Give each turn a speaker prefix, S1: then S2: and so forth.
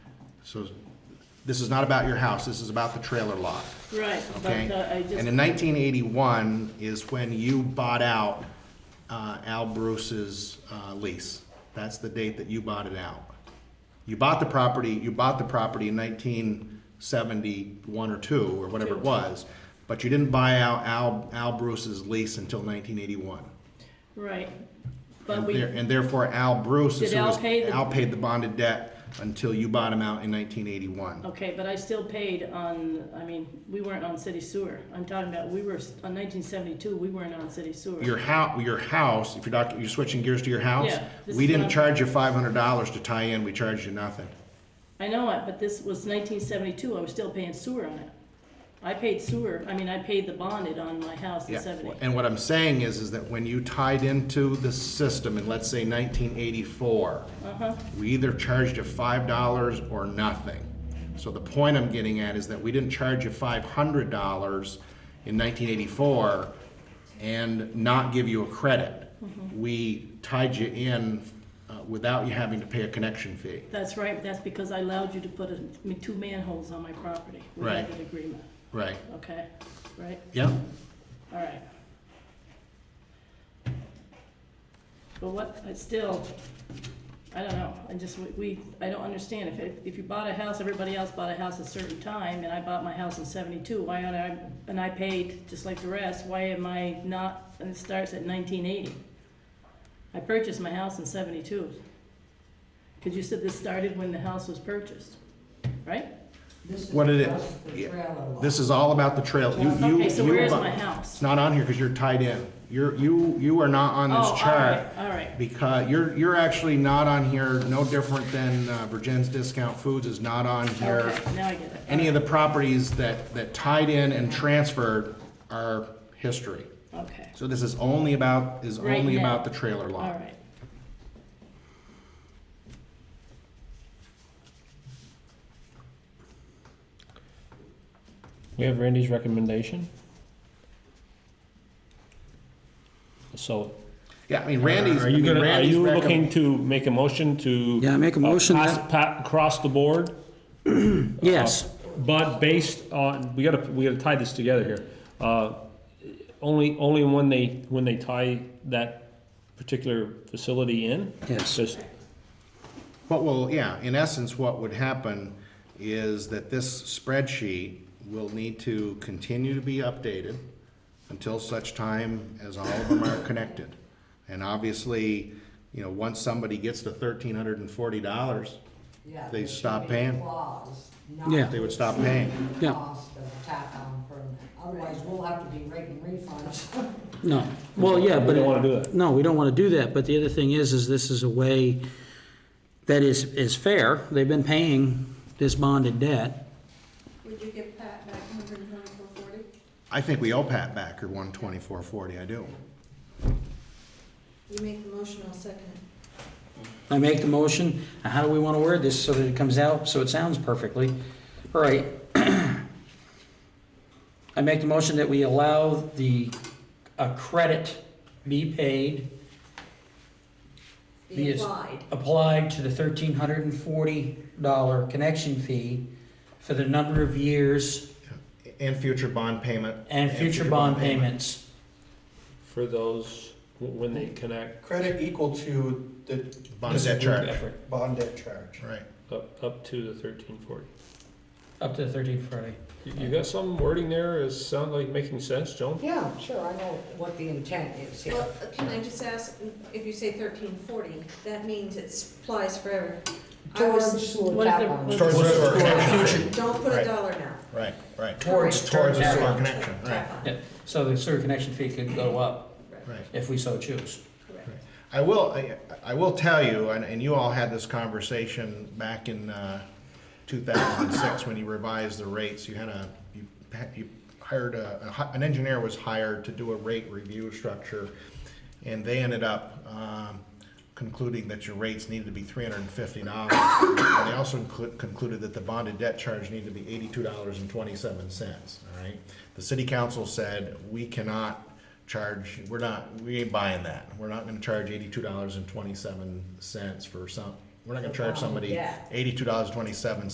S1: So this is not about your house, this is about the trailer lot,
S2: Right,
S1: okay?
S2: but uh, I
S1: And
S2: just,
S1: in nineteen eighty-one is when you bought out, uh, Al Bruce's, uh, lease. That's the date that you bought it out. You bought the property, you bought the property in nineteen seventy-one or two, or whatever it was, but you didn't buy out Al, Al Bruce's lease until nineteen eighty-one.
S2: right. But
S1: And
S2: we,
S1: there- and therefore Al Bruce is
S2: Did
S1: who
S2: Al
S1: was,
S2: pay the-
S1: Al paid the bonded debt until you bought him out in nineteen eighty-one.
S2: okay, but I still paid on, I mean, we weren't on city sewer. I'm talking about, we were, s- on nineteen seventy-two, we weren't on city sewer.
S1: Your house, your house, if you're not, you're switching gears to your house,
S2: Yeah, this
S1: we
S2: is
S1: didn't
S2: what I'm-
S1: charge you five hundred dollars to tie in, we charged you nothing.
S2: I know it, but this was nineteen seventy-two, I was still paying sewer on it. I paid sewer, I mean, I paid the bonded on my house in
S1: Yeah.
S2: seventy.
S1: And what I'm saying is, is that when you tied into the system in, let's say nineteen eighty-four,
S2: Uh-huh,
S1: we either charged you five dollars or nothing. So the point I'm getting at is that we didn't charge you five hundred dollars in nineteen eighty-four and not give you a credit.
S2: Mm-hmm.
S1: We tied you in uh, without you having to pay a connection fee.
S2: that's right, that's because I allowed you to put a, me- two manholes on my property. We had
S1: Right.
S2: an agreement,
S1: Right,
S2: okay, right,
S1: yeah?
S2: all right. But what, I still, I don't know, I just, we- we, I don't understand, if, if- if you bought a house, everybody else bought a house a certain time, and I bought my house in seventy-two, why aren't I, and I paid just like the rest, why am I not, and it starts at nineteen eighty? I purchased my house in seventy-two. Cause you said this started when the house was purchased, right?
S3: This is
S1: What it is.
S3: just the
S1: Yeah.
S3: trailer lot.
S1: This is all about the trail. You- you-
S2: Okay, so
S1: you
S2: where is
S1: bu-
S2: my
S1: It's
S2: house?
S1: not on here because you're tied in. You're, you, you are not on
S2: Oh, all
S1: this chart.
S2: right, All right,
S1: Because you're, you're actually not on here, no different than uh, Virgin's Discount Foods is not on here.
S2: okay, now I get it.
S1: Any of the properties that, that tied in and transferred are history.
S2: Okay,
S1: So this is only about, is
S2: Right
S1: only
S2: now.
S1: about the trailer
S2: all
S1: lot.
S2: right.
S4: We have Randy's recommendation. So,
S1: Yeah, I mean, Randy's,
S4: are
S1: I
S4: you
S1: mean,
S4: gonna, are
S1: Randy's
S4: you
S1: recomm-
S4: looking to make a motion to?
S5: Yeah, make a
S4: uh,
S5: motion
S4: pass-
S5: that-
S4: pa- Across the board? Uh,
S5: Yes,
S4: But based on, we gotta, we gotta tie this together here. Uh, Only, only when they, when they tie that particular facility in?
S5: Yes.
S4: Just-
S1: What will, yeah, in essence, what would happen is that this spreadsheet will need to continue to be updated until such time as all of them are connected. And obviously, you know, once somebody gets to thirteen hundred and forty dollars,
S3: Yeah,
S1: they
S3: there
S1: stop
S3: should be a
S1: paying.
S3: clause not
S5: Yeah.
S1: they would stop paying.
S3: the
S5: Yeah.
S3: Cost of tack on permit, otherwise we'll have to be raking refunds.
S5: no, well, yeah,
S4: We
S5: but.
S4: don't wanna do that.
S5: No, we don't want to do that, but the other thing is, is this is a way that is, is fair. They've been paying this bonded debt.
S6: Would you give Pat back hundred and twenty-four forty?
S1: I think we owe Pat Backer one twenty-four forty, I do.
S6: You make the motion, I'll second it.
S5: I make the motion, Now, how do we want to word this so that it comes out, so it sounds perfectly? All right. I make the motion that we allow the, a credit be paid,
S3: Be
S5: Yes.
S3: applied,
S5: applied to the thirteen hundred and forty dollar connection fee for the number of years
S1: And future bond payment.
S5: And future bond payments.
S4: For those, w- when they connect,
S7: Credit equal to the
S1: Bond debt charge,
S5: Effort,
S7: bond debt charge.
S1: right.
S4: up, up to the thirteen forty.
S5: Up to the thirteenth Friday.
S4: You you got some wording there, is sound like making sense, Joan?
S3: yeah, sure, I know what the intent is here.
S6: Well, uh, can I just ask, if you say thirteen forty, that means it applies forever. I
S3: Towards
S6: was-
S3: sewer
S2: What if
S3: tap
S2: they're-
S3: on.
S2: what if
S1: Towards
S3: sewer
S1: sewer
S3: tap on.
S6: Don't put
S1: Right.
S6: a dollar now.
S1: Right, right,
S5: Towards-
S1: towards the sewer
S6: Tap on.
S1: connection, right.
S6: Tap on.
S5: Yeah, so the sewer connection fee could go up
S1: right.
S5: if we so choose.
S6: Correct.
S1: I will, I, I will tell you, and, and you all had this conversation back in, uh, two thousand and six, when you revised the rates, you had a, you, ha- you hired a, a hi- an engineer was hired to do a rate review structure, and they ended up, um, concluding that your rates needed to be three hundred and fifty dollars. And they also inclu- concluded that the bonded debt charge needed to be eighty-two dollars and twenty-seven cents, all right? The city council said, we cannot charge, we're not, we ain't buying that. We're not gonna charge eighty-two dollars and twenty-seven cents for some, we're not gonna charge somebody
S3: Yeah.
S1: eighty-two dollars and twenty-seven